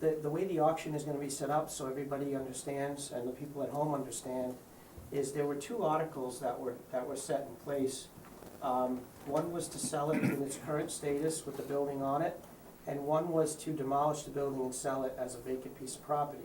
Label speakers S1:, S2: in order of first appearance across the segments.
S1: the, the way the auction is gonna be set up, so everybody understands and the people at home understand, is there were two articles that were, that were set in place. Um, one was to sell it in its current status with the building on it, and one was to demolish the building and sell it as a vacant piece of property.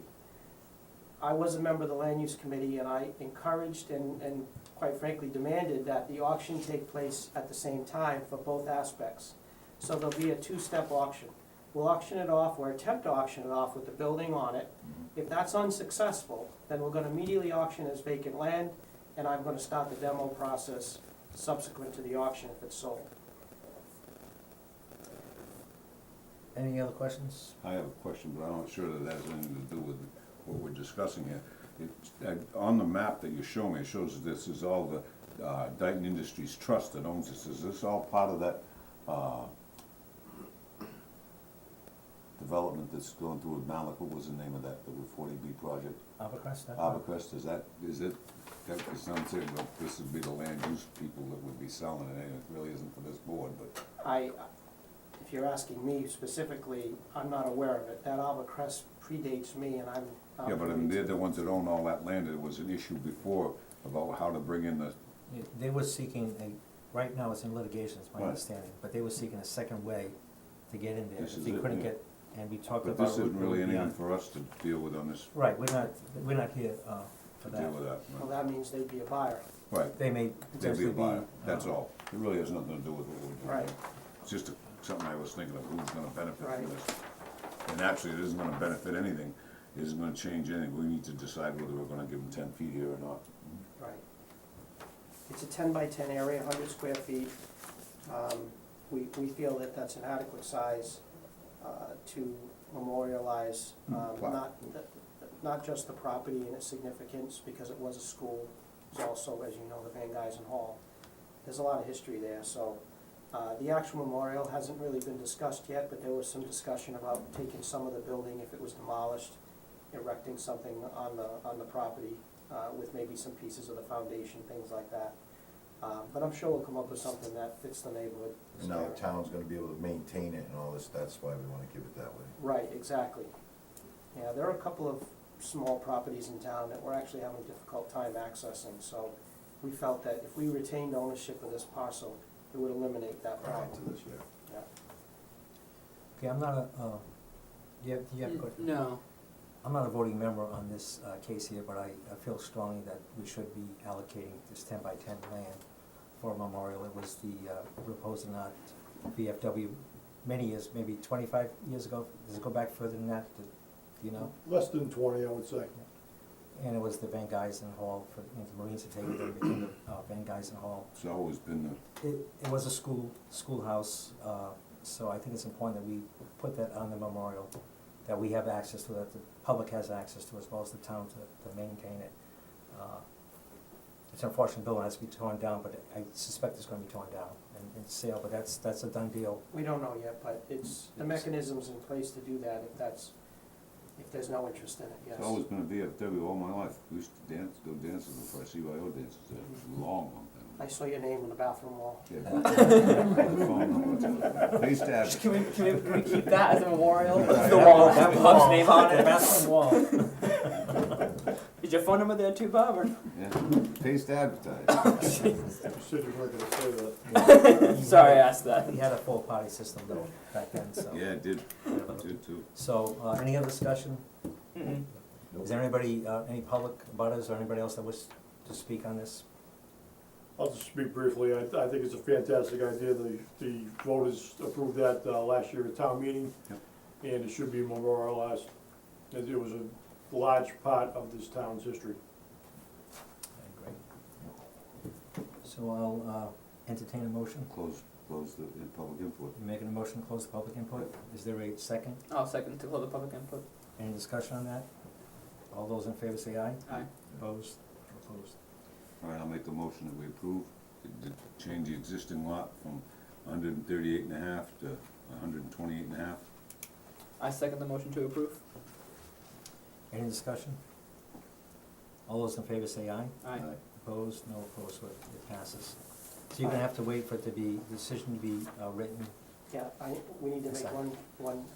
S1: I was a member of the land use committee and I encouraged and, and quite frankly demanded that the auction take place at the same time for both aspects. So there'll be a two-step auction. We'll auction it off or attempt to auction it off with the building on it.
S2: Mm-hmm.
S1: If that's unsuccessful, then we're gonna immediately auction as vacant land and I'm gonna start the demo process subsequent to the auction if it's sold.
S3: Any other questions?
S2: I have a question, but I'm not sure that that has anything to do with what we're discussing here. It, uh, on the map that you show me, it shows that this is all the, uh, Dayton Industries Trust that owns this. Is this all part of that, uh, development that's going through with Malik? What was the name of that, the forty B project?
S3: Abercrest, that one?
S2: Abacrest, is that, is it, that, it sounds like, well, this would be the land use people that would be selling it, and it really isn't for this board, but,
S1: I, if you're asking me specifically, I'm not aware of it. That Alba Crest predates Uh, me and I'm. I'm-
S2: yeah, but I mean, they're the ones that own all that land, it was an issue before about how to bring in the
S3: Yeah, They were seeking a, right now it's in litigation, is my
S2: Right.
S3: understanding, but they were seeking a second way to get in there.
S2: This
S3: If
S2: is
S3: they
S2: it,
S3: couldn't
S2: yeah.
S3: get, and we talked
S2: But
S3: about.
S2: this isn't really
S3: yeah.
S2: anything for us to deal with on this,
S3: Right, we're not, we're not here, uh, for
S2: to deal
S3: that.
S2: with that.
S1: Well, that means they'd be a buyer.
S2: Right,
S3: They may
S2: they'd be
S3: potentially
S2: a
S3: be.
S2: buyer, that's
S3: uh,
S2: all. It really has nothing to do with what we're doing.
S1: Right.
S2: It's just a- something I was thinking of, who's gonna benefit
S1: Right.
S2: from this? And actually, it isn't gonna benefit anything, it isn't gonna change anything. We need to decide whether we're gonna give them ten feet here or not.
S1: Right. It's a ten by ten area, hundred square feet. Um, We, we feel that that's an adequate size uh, to memorialize, um,
S2: Mm, wow.
S1: not, the- not just the property and its significance, because it was a school. It's also, as you know, the Van Geisen Hall. There's a lot of history there, so uh, the actual memorial hasn't really been discussed yet, but there was some discussion about taking some of the building if it was demolished, erecting something on the, on the property uh, with maybe some pieces of the foundation, things like that. Um, But I'm sure we'll come up with something that fits the neighborhood.
S4: And now the town's gonna be able to maintain it and all this, that's why we wanna give it that way.
S1: Right, exactly. Yeah, there are a couple of small properties in town that we're actually having a difficult time accessing, so we felt that if we retained ownership of this parcel, it would eliminate that
S4: Prior
S1: problem.
S4: to this year.
S1: Yeah.
S3: Okay, I'm not a, uh, you have, you have a question?
S5: No,
S3: I'm not a voting member on this uh, case here, but I, I feel strongly that we should be allocating this ten by ten land for a memorial. It was the uh, proposed in our VFW many years, maybe twenty-five years ago. Does it go back further than that, Do- do you know?
S6: Less than twenty, I would say.
S3: And it was the Van Geisen Hall for, you know, the Marines had taken it, it became the uh, Van Geisen Hall.
S2: It's always been the,
S3: It, it was a school, schoolhouse, uh, so I think it's important that we put that on the memorial, that we have access to, that the public has access to, as well as the town to, to maintain it. Uh, It's unfortunate, building has to be torn down, but I suspect it's gonna be torn down and, and sale, but that's, that's a done deal.
S1: We don't know yet, but it's, the mechanism's in place to do that if that's, if there's no interest in it, yes.
S2: it's always been a VFW all my life. We used to dance, go dances before I CYO dances, there was a long, long
S1: I
S2: time.
S1: saw your name on the bathroom wall.
S2: Yeah. The phone number. They used to have it.
S5: can we, can we, can we keep that as a memorial?
S3: The wall,
S5: Have Bob's name on
S3: The
S5: it.
S3: bathroom wall.
S5: Is your phone number there too, Bob, or?
S2: Yeah, taste advertised.
S6: I'm sure you weren't gonna say that.
S5: Sorry, I asked that.
S3: We had a full party system though, back then, so.
S2: Yeah, it did, it did too.
S3: So, uh, any other discussion?
S5: Mm-mm.
S3: Is there anybody, uh, any public butters or anybody else that wishes to speak on this?
S6: I'll just speak briefly, I, I think it's a fantastic idea, the, the voters approved that, uh, last year at town meeting,
S2: Yep.
S6: and it should be memorialized, it it was a large part of this town's history.
S3: Great. So I'll uh, entertain a motion,
S2: Close, close the the public input.
S3: making a motion to close the public input. Is there a second?
S5: I'll second to close the public input.
S3: Any discussion on that? All those in favor say aye.
S5: Aye.
S3: Opposed? Opposed.
S2: All right, I'll make a motion that we approve, to to change the existing lot from 138 and a half to 128 and a half.
S5: I second the motion to approve.
S3: Any discussion? All those in favor say aye.
S5: Aye.
S3: Opposed? No opposed, so it it passes. So you're gonna have to wait for it to be, decision to be uh, written
S1: Yeah, I, we need to make one, one